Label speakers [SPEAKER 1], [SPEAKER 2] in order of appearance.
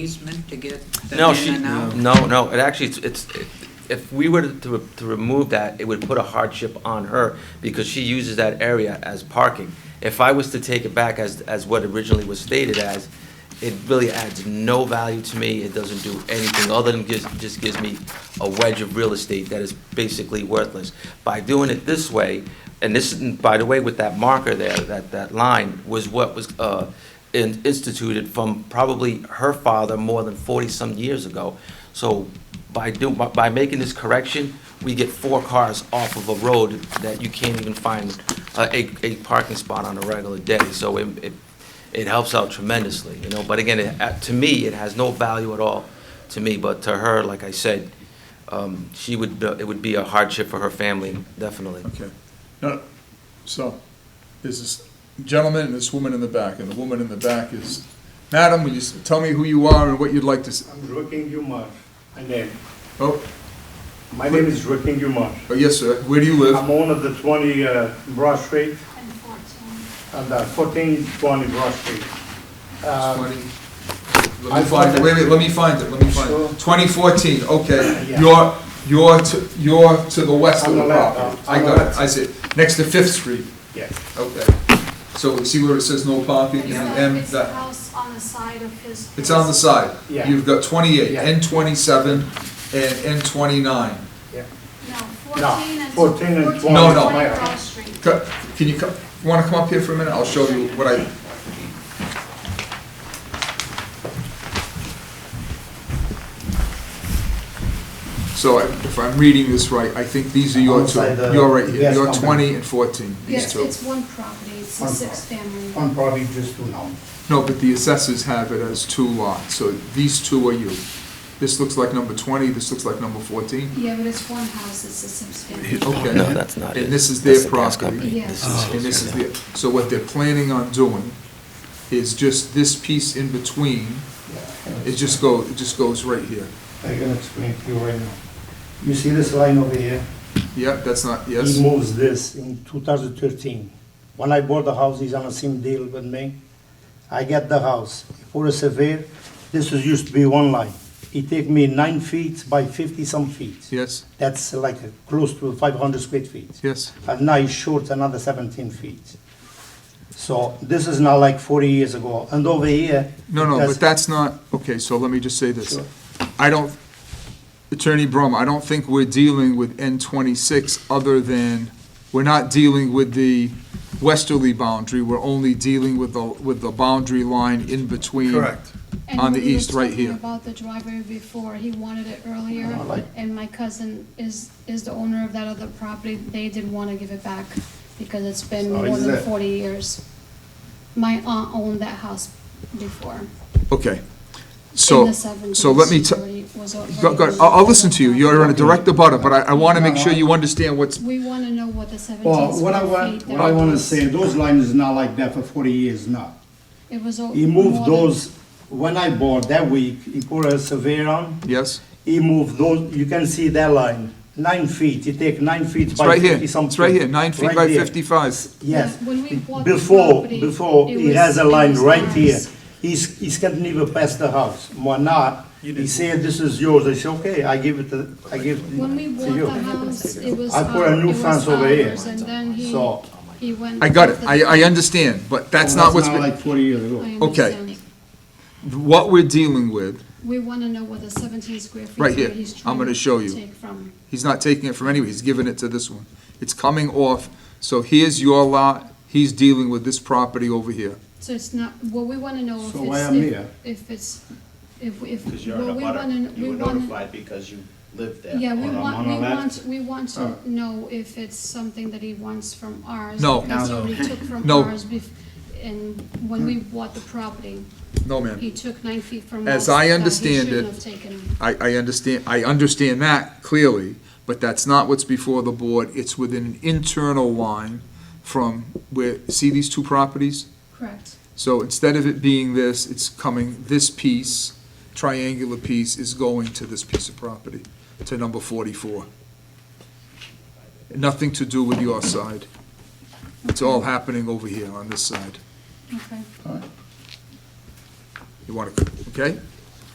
[SPEAKER 1] easement to get
[SPEAKER 2] No,
[SPEAKER 1] them
[SPEAKER 2] she,
[SPEAKER 1] in and out?
[SPEAKER 2] no, no, it actually, it's- it's, if we were to, to remove that, it would put a hardship on her because she uses that area as parking. If I was to take it back as, as what originally was stated as, it really adds no value to me. It doesn't do anything other than gives, just gives me a wedge of real estate that is basically worthless. By doing it this way, and this, and by the way, with that marker there, that, that line was what was, uh, in- instituted from probably her father more than 40-some years ago. So by do, by- by making this correction, we get four cars off of a road that you can't even find uh, a, a parking spot on a regular day. So it, it- it helps out tremendously, you know? But again, it- uh, to me, it has no value at all to me, but to her, like I said, um, she would, it would be a hardship for her family, definitely.
[SPEAKER 3] Okay. No, so, there's this gentleman and this woman in the back, and the woman in the back is, Madam, will you s- tell me who you are and what you'd like to, s-
[SPEAKER 4] I'm Ruking Umar, my name.
[SPEAKER 3] oh,
[SPEAKER 4] My name is Ruking Umar.
[SPEAKER 3] oh, yes, sir, where do you live?
[SPEAKER 4] I'm owner of the 20 uh, Broad Street
[SPEAKER 5] And 14.
[SPEAKER 4] and uh, 1420 Broad Street. Uh,
[SPEAKER 3] Twenty-
[SPEAKER 4] I
[SPEAKER 3] Let me
[SPEAKER 4] thought
[SPEAKER 3] find it,
[SPEAKER 4] that-
[SPEAKER 3] wait, wait, let me find it, let me find
[SPEAKER 4] Sure.
[SPEAKER 3] it. Twenty fourteen, okay.
[SPEAKER 4] Yeah.
[SPEAKER 3] You're, you're to, you're to the west of
[SPEAKER 4] On
[SPEAKER 3] the
[SPEAKER 4] the left,
[SPEAKER 3] property.
[SPEAKER 4] uh,
[SPEAKER 3] I
[SPEAKER 4] on the
[SPEAKER 3] got it,
[SPEAKER 4] left.
[SPEAKER 3] I see it. Next to Fifth Street,
[SPEAKER 4] Yes,
[SPEAKER 3] okay. So see where it says no parking
[SPEAKER 5] It's
[SPEAKER 3] and
[SPEAKER 5] the-
[SPEAKER 3] M,
[SPEAKER 5] It's the
[SPEAKER 3] that,
[SPEAKER 5] house on the side of his.
[SPEAKER 3] it's on the
[SPEAKER 5] house.
[SPEAKER 3] side.
[SPEAKER 4] Yeah.
[SPEAKER 3] You've got twenty-eight,
[SPEAKER 4] Yeah.
[SPEAKER 3] N twenty-seven, and N twenty-nine.
[SPEAKER 4] yeah.
[SPEAKER 5] No,
[SPEAKER 4] No,
[SPEAKER 5] 14 and.
[SPEAKER 4] 14 and
[SPEAKER 5] 14
[SPEAKER 3] No, no.
[SPEAKER 5] White Cross Street.
[SPEAKER 3] Co- Can you come, you wanna come up here for a minute? I'll show you what I, so I- if I'm reading this right, I think these are your two.
[SPEAKER 4] Alongside the
[SPEAKER 3] You're right here,
[SPEAKER 4] gas
[SPEAKER 3] you're
[SPEAKER 4] company.
[SPEAKER 3] twenty and fourteen, these
[SPEAKER 5] Yes,
[SPEAKER 3] two.
[SPEAKER 5] it's one property, it's a
[SPEAKER 4] One
[SPEAKER 5] six-family.
[SPEAKER 4] I'm probably just two now.
[SPEAKER 3] No, but the assessors have it as two lots, so these two are you. This looks like number twenty, this looks like number fourteen.
[SPEAKER 5] Yeah, but it's one house, it's a six-family.
[SPEAKER 3] Okay.
[SPEAKER 2] No, that's not it.
[SPEAKER 3] And this is
[SPEAKER 2] That's
[SPEAKER 3] their
[SPEAKER 2] the gas
[SPEAKER 3] property. Oh,
[SPEAKER 2] company.
[SPEAKER 5] Yeah.
[SPEAKER 2] This
[SPEAKER 3] And this is
[SPEAKER 2] yeah.
[SPEAKER 3] the, so what they're planning on doing is just this piece in between, it just go, it just goes right here.
[SPEAKER 4] I can explain to you right now. You see this line over here?
[SPEAKER 3] Yep, that's not,
[SPEAKER 4] He
[SPEAKER 3] yes,
[SPEAKER 4] moves this in 2013. When I bought the house, he's on the same deal with me. I get the house. For a surveyor, this was used to be one line. It take me nine feet by 50 some feet.
[SPEAKER 3] yes,
[SPEAKER 4] That's like close to 500 square feet.
[SPEAKER 3] yes.
[SPEAKER 4] And now it's short another 17 feet. So this is not like 40 years ago. And over here.
[SPEAKER 3] No, no,
[SPEAKER 4] that's-
[SPEAKER 3] but that's not, okay, so let me just say this.
[SPEAKER 4] Sure.
[SPEAKER 3] I don't, Attorney Brum, I don't think we're dealing with N twenty-six other than, we're not dealing with the westerly boundary, we're only dealing with the, with the boundary line in between.
[SPEAKER 4] Correct.
[SPEAKER 5] And
[SPEAKER 3] On the
[SPEAKER 5] we were
[SPEAKER 3] east, right
[SPEAKER 5] talking
[SPEAKER 3] here.
[SPEAKER 5] About the driveway before, he wanted it earlier,
[SPEAKER 4] I like-
[SPEAKER 5] and my cousin is, is the owner of that other property, they didn't wanna give it back, because it's been
[SPEAKER 4] So
[SPEAKER 5] more
[SPEAKER 4] is
[SPEAKER 5] than
[SPEAKER 4] it-
[SPEAKER 5] forty years. My aunt owned that house before,
[SPEAKER 3] Okay,
[SPEAKER 5] in
[SPEAKER 3] so,
[SPEAKER 5] the seventies.
[SPEAKER 3] so let me, t- go, go, I'll, I'll listen to you, you're on a direct abutter, but I, I wanna make sure you understand what's,
[SPEAKER 5] We want to know what the 17
[SPEAKER 6] Well, what I
[SPEAKER 5] square
[SPEAKER 6] want,
[SPEAKER 5] feet.
[SPEAKER 6] what I want to say,
[SPEAKER 5] that was.
[SPEAKER 6] those lines is not like that for forty years now.
[SPEAKER 5] It was. o-
[SPEAKER 6] He
[SPEAKER 5] more
[SPEAKER 6] moved
[SPEAKER 5] than-
[SPEAKER 6] those, when I bought that week, he put a surveyor on,
[SPEAKER 3] yes?
[SPEAKER 6] he moved those, you can see that line, nine feet, he take nine feet
[SPEAKER 3] It's
[SPEAKER 6] by
[SPEAKER 3] right here,
[SPEAKER 6] fifty something.
[SPEAKER 3] it's right here, nine feet
[SPEAKER 6] Right
[SPEAKER 3] by
[SPEAKER 6] there.
[SPEAKER 3] fifty-five.
[SPEAKER 6] Yes.
[SPEAKER 5] Yeah, when we bought the
[SPEAKER 6] Before,
[SPEAKER 5] property,
[SPEAKER 6] before,
[SPEAKER 5] it
[SPEAKER 6] he
[SPEAKER 5] was-
[SPEAKER 6] has a
[SPEAKER 5] it
[SPEAKER 6] line
[SPEAKER 5] was
[SPEAKER 6] right
[SPEAKER 5] ours.
[SPEAKER 6] here. He's, he's can't even pass the house. Why not? He said, this is yours. I said, okay, I give it to, I give it
[SPEAKER 5] When we
[SPEAKER 6] to
[SPEAKER 5] bought
[SPEAKER 6] you.
[SPEAKER 5] the house, it was.
[SPEAKER 6] I put a
[SPEAKER 5] our-
[SPEAKER 6] new
[SPEAKER 5] it was
[SPEAKER 6] fence over here.
[SPEAKER 5] ours, And then he,
[SPEAKER 6] So-
[SPEAKER 5] he went.
[SPEAKER 3] I got it,
[SPEAKER 5] with the-
[SPEAKER 3] I, I understand, but that's not what's, been-
[SPEAKER 6] Like forty years ago.
[SPEAKER 5] I
[SPEAKER 3] okay.
[SPEAKER 5] understand.
[SPEAKER 3] what we're dealing with,
[SPEAKER 5] We want to know what the 17 square feet.
[SPEAKER 3] Right
[SPEAKER 5] where
[SPEAKER 3] here.
[SPEAKER 5] he's
[SPEAKER 3] I'm
[SPEAKER 5] trying
[SPEAKER 3] gonna
[SPEAKER 5] to
[SPEAKER 3] show you.
[SPEAKER 5] Take from.
[SPEAKER 3] he's not taking it from anywhere, he's giving it to this one. It's coming off, so here's your lot, he's dealing with this property over here.
[SPEAKER 5] So it's not, what we want to know if
[SPEAKER 6] So why
[SPEAKER 5] it's,
[SPEAKER 6] I'm
[SPEAKER 5] if-
[SPEAKER 6] here?
[SPEAKER 5] if it's, if, if.
[SPEAKER 7] Because you're in
[SPEAKER 5] what
[SPEAKER 7] a
[SPEAKER 5] we wanna
[SPEAKER 7] butter,
[SPEAKER 5] kn- we
[SPEAKER 7] you were
[SPEAKER 5] wanna-
[SPEAKER 7] notified because you lived there.
[SPEAKER 5] Yeah, we
[SPEAKER 6] on a-
[SPEAKER 5] want,
[SPEAKER 6] on
[SPEAKER 5] we
[SPEAKER 6] a lap.
[SPEAKER 5] want, we want
[SPEAKER 6] Oh.
[SPEAKER 5] to know if it's something that he wants from ours.
[SPEAKER 3] No.
[SPEAKER 5] Because he
[SPEAKER 6] No, no.
[SPEAKER 5] already took from
[SPEAKER 3] No.
[SPEAKER 5] ours bef, and when we bought the property,
[SPEAKER 3] No,
[SPEAKER 5] he
[SPEAKER 3] ma'am,
[SPEAKER 5] took nine feet from us.
[SPEAKER 3] As I
[SPEAKER 5] that he
[SPEAKER 3] understand
[SPEAKER 5] shouldn't
[SPEAKER 3] it-
[SPEAKER 5] have taken.
[SPEAKER 3] I, I understand, I understand that clearly, but that's not what's before the board, it's within an internal line from where, see these two properties?
[SPEAKER 5] Correct.
[SPEAKER 3] So instead of it being this, it's coming, this piece, triangular piece, is going to this piece of property, to number forty-four. Nothing to do with your side. It's all happening over here on this side.
[SPEAKER 5] Okay.
[SPEAKER 3] You want to, okay?